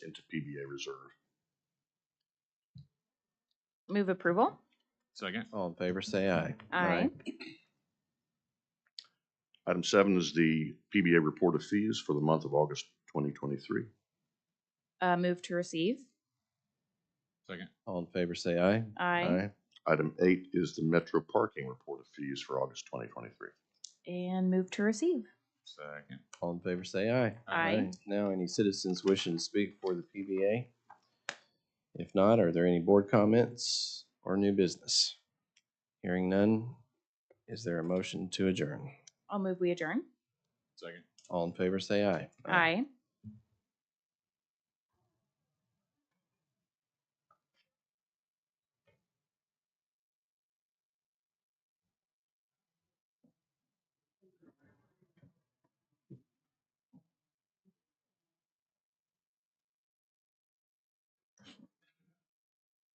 into PBA reserve. Move approval. Second. All in favor, say aye. Aye. Item seven is the PBA report of fees for the month of August twenty twenty-three. Uh, move to receive. Second. All in favor, say aye. Aye. Item eight is the Metro Parking report of fees for August twenty twenty-three. And move to receive. Second. All in favor, say aye. Aye. Now, any citizens wishing to speak for the PBA? If not, are there any board comments or new business? Hearing none, is there a motion to adjourn? I'll move we adjourn. Second. All in favor, say aye. Aye.